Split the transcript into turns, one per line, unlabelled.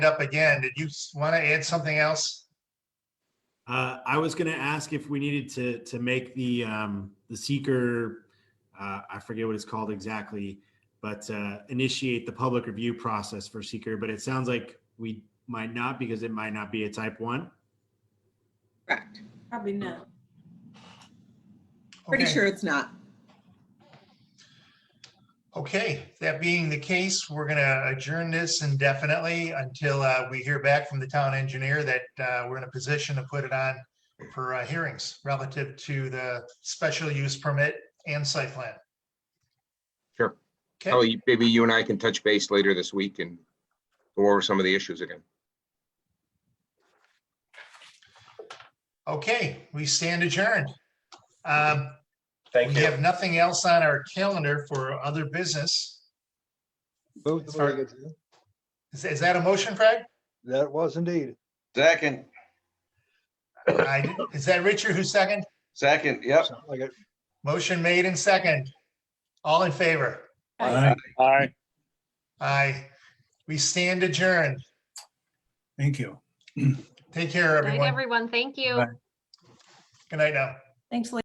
up again. Did you want to add something else?
Uh, I was going to ask if we needed to to make the um, the seeker, uh, I forget what it's called exactly, but uh, initiate the public review process for seeker. But it sounds like we might not because it might not be a type one.
Correct.
Probably not.
Pretty
Okay.
sure it's not.
Okay, that being the case, we're gonna adjourn this indefinitely until uh, we hear back from the town engineer that uh, we're in a position to put it on for uh, hearings relative to the special use permit and site plan.
Sure.
Okay,
Kelly, maybe Oh, you and I can touch base later this week and go over some of the issues again.
okay, we stand adjourned. Um, We
Thank you.
have nothing else on our calendar for other business.
Move the
Sorry.
mortgage. yeah?
Is- Is that a motion, Craig?
That was indeed.
Second,
I- Is that Richard who second?
second, yep.
Sound like it.
Motion made and second. All in favor?
Aye.
Aye.
Aye. We stand adjourned.
Thank you.
Take care,
Night,
everyone.
everyone. Thank you.
Bye.
Good night now.
Thanks, Lee.